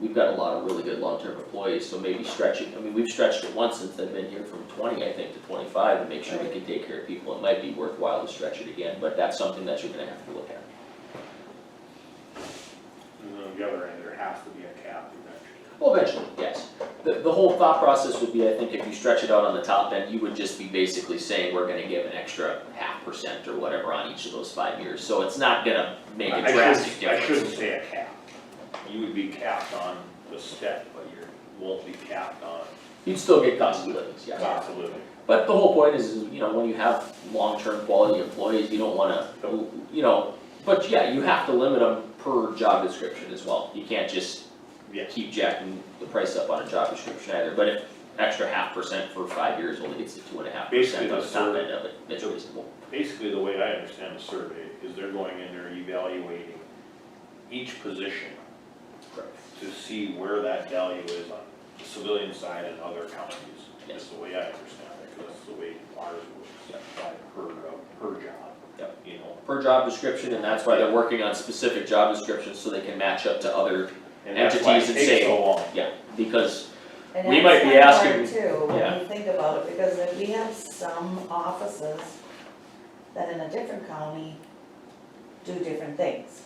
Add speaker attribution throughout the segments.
Speaker 1: we've got a lot of really good long-term employees, so maybe stretching, I mean, we've stretched it once since I've been here from twenty, I think, to twenty-five, and make sure we can take care of people, it might be worthwhile to stretch it again, but that's something that you're gonna have to look at.
Speaker 2: And then on the other end, there has to be a cap eventually.
Speaker 1: Well, eventually, yes. The, the whole thought process would be, I think, if you stretch it out on the top end, you would just be basically saying, we're gonna give an extra half percent or whatever on each of those five years, so it's not gonna make
Speaker 2: I-
Speaker 1: a
Speaker 2: I should-
Speaker 1: drastic
Speaker 2: I
Speaker 1: difference.
Speaker 2: shouldn't say a cap. You would be capped on the step, but you won't be capped on
Speaker 1: You'd still get cost of livings, yes.
Speaker 2: cost of living.
Speaker 1: But the whole point is, is, you know, when you have long-term quality employees, you don't wanna, you know, but yeah, you have to limit them per job description as well. You can't just
Speaker 2: Yes.
Speaker 1: keep jacking the price up on a job description either, but if extra half percent for five years only gets to two and a half
Speaker 2: Basically,
Speaker 1: percent on the top
Speaker 2: the sur-
Speaker 1: end of it, it's reasonable.
Speaker 2: Basically, the way I understand the survey is they're going in there evaluating each position to see where that value is on the civilian side and other counties. That's the way I understand it, 'cause that's the way ours works, by per, uh, per job.
Speaker 1: Yep.
Speaker 2: You know,
Speaker 1: Per job description, and that's why they're working on specific job descriptions so they can match up to other,
Speaker 2: and that's why it
Speaker 1: Entities and
Speaker 2: takes so
Speaker 1: say-
Speaker 2: long.
Speaker 1: yeah, because,
Speaker 3: And
Speaker 1: We
Speaker 3: that's
Speaker 1: might be
Speaker 3: kinda
Speaker 1: asking-
Speaker 3: hard too, when
Speaker 1: yeah.
Speaker 3: you think about it, because if we have some offices that in a different county do different things.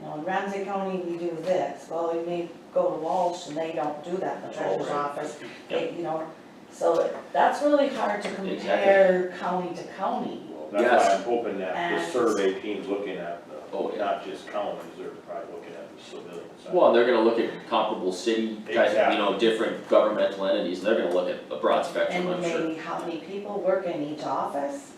Speaker 3: You know, in Ramsey County, we do this, well, we may go to Walsh and they don't do that in the
Speaker 1: Oh, right.
Speaker 3: treasurer's office, they, you know. So that's really hard to
Speaker 1: Exactly.
Speaker 3: compare county to county.
Speaker 2: Well, That's why
Speaker 1: Yes.
Speaker 2: I'm hoping that the
Speaker 3: And-
Speaker 2: survey team's looking at
Speaker 1: Oh,
Speaker 2: the,
Speaker 1: yeah.
Speaker 2: not just counties, they're probably looking at the civilian side.
Speaker 1: well, they're gonna look at comparable city, type, you know,
Speaker 2: Exactly.
Speaker 1: different governmental entities, they're gonna look at a broad spectrum,
Speaker 3: And
Speaker 1: I'm sure.
Speaker 3: maybe how many people work in each office,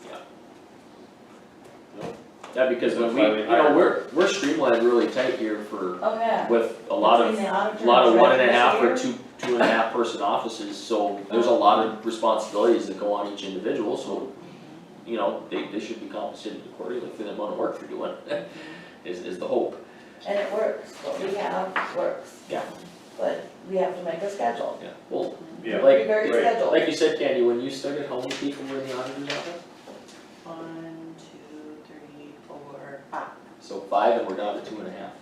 Speaker 1: Yeah, because when
Speaker 2: That's
Speaker 1: we,
Speaker 2: why we
Speaker 1: you
Speaker 2: hire-
Speaker 1: know, we're, we're streamlined really tight here for,
Speaker 3: oh yeah.
Speaker 1: with a lot of,
Speaker 3: Between the auditor
Speaker 1: a lot of one and a
Speaker 3: treasurer's
Speaker 1: half or
Speaker 3: here.
Speaker 1: two, two and a half person offices, so there's a lot of responsibilities that go on each individual, so, you know, they, they should be compensated accordingly for the amount of work they're doing, is, is the hope.
Speaker 3: And it works, what we have works.
Speaker 1: Yeah.
Speaker 3: But we have to make a schedule.
Speaker 1: Yeah, well,
Speaker 2: Yeah.
Speaker 1: like,
Speaker 3: Very
Speaker 2: right.
Speaker 3: scheduled.
Speaker 1: like you said, Candy, when you started, how many people were in the auditor's office?
Speaker 4: One, two, three, four, five.
Speaker 1: So five, and we're down to two and a half,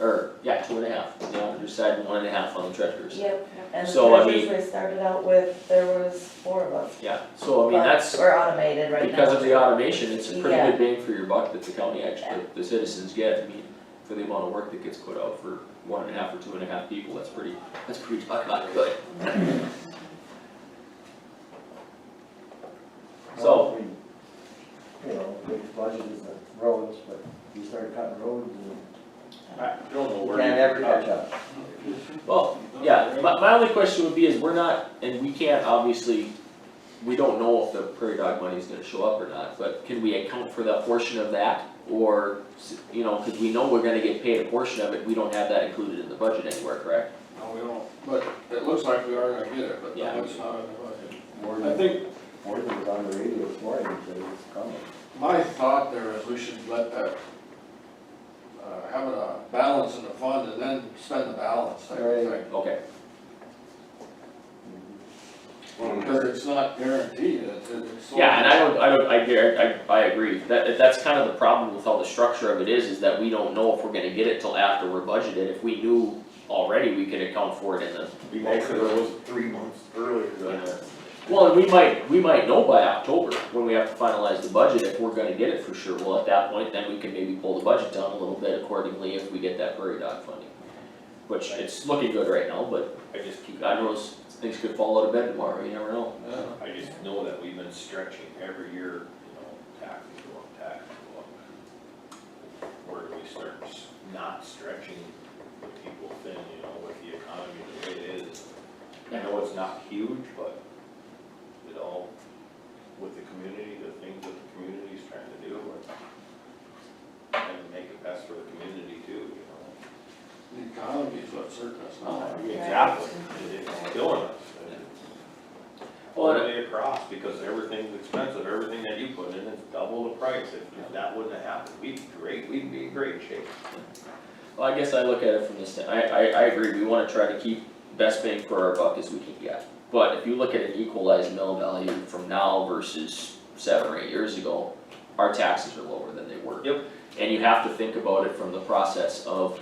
Speaker 1: or, yeah, two and a half, on the auditor's side and one and a half on the treasurer's.
Speaker 3: Yep, and the
Speaker 1: So, I
Speaker 3: treasures
Speaker 1: mean-
Speaker 3: we started out with, there was four of us.
Speaker 1: Yeah, so I mean,
Speaker 3: but
Speaker 1: that's,
Speaker 3: We're automated right now.
Speaker 1: Because of the automation, it's a pretty
Speaker 3: Yeah.
Speaker 1: good bang for your buck that the county actually, the citizens get, I mean, for the amount of work that gets put out for one and a half or two and a half people, that's pretty, that's pretty talk about good. So-
Speaker 5: You know, big budget is the roads, but you start cutting roads and
Speaker 2: I don't know
Speaker 5: you
Speaker 2: where.
Speaker 5: can't
Speaker 2: you-
Speaker 5: ever catch up.
Speaker 1: Well, yeah, my, my only question would be is we're not, and we can't obviously, we don't know if the prairie dog money is gonna show up or not, but can we account for that portion of that? Or, s- you know, cause we know we're gonna get paid a portion of it, we don't have that included in the budget anywhere, correct?
Speaker 6: No, we don't, but it looks like we are gonna get it, but
Speaker 1: Yeah.
Speaker 6: no, it's not in the budget.
Speaker 5: More
Speaker 6: I
Speaker 5: than,
Speaker 6: think
Speaker 5: more than was on the radio this morning, that it's coming.
Speaker 6: my thought there is we should let that, uh, have a balance in the fund and then spend the balance, I
Speaker 5: Right.
Speaker 6: think.
Speaker 1: Okay,
Speaker 6: Because it's not guaranteed, it's, it's. so-
Speaker 1: Yeah, and I don't, I don't, I gar- I, I agree, that, that's kind of the problem with how the structure of it is, is that we don't know if we're gonna get it till after we're budgeted, if we knew already, we could account for it in the.
Speaker 2: We make those three months earlier than that.
Speaker 1: Well, and we might, we might know by October, when we have to finalize the budget, if we're gonna get it for sure, well, at that point, then we can maybe pull the budget down a little bit accordingly if we get that prairie dog funding. Which, it's looking good right now, but
Speaker 2: I just keep,
Speaker 1: God knows, things could fall out of bed tomorrow, you never know.
Speaker 6: Yeah.
Speaker 2: I just know that we've been stretching every year, you know, taxes go up, taxes go up. Where do we start s- not stretching the people thin, you know, with the economy the way it is? I know it's not huge, but it all, with the community, the things that the community's trying to do, and trying to make it best for the community too, you know?
Speaker 6: The economy is what circus
Speaker 1: Oh,
Speaker 6: now.
Speaker 2: Exactly, it's killing us. All the way across, because everything's expensive, everything that you put in is double the price, if that wouldn't have happened, we'd be great, we'd be in great shape.
Speaker 1: Well, I guess I look at it from this, stand- I, I, I agree, we wanna try to keep best bang for our buck as we can get. But if you look at an equalized mill value from now versus seven or eight years ago, our taxes are lower than they were.
Speaker 2: Yep.
Speaker 1: And you have to think about it from the process of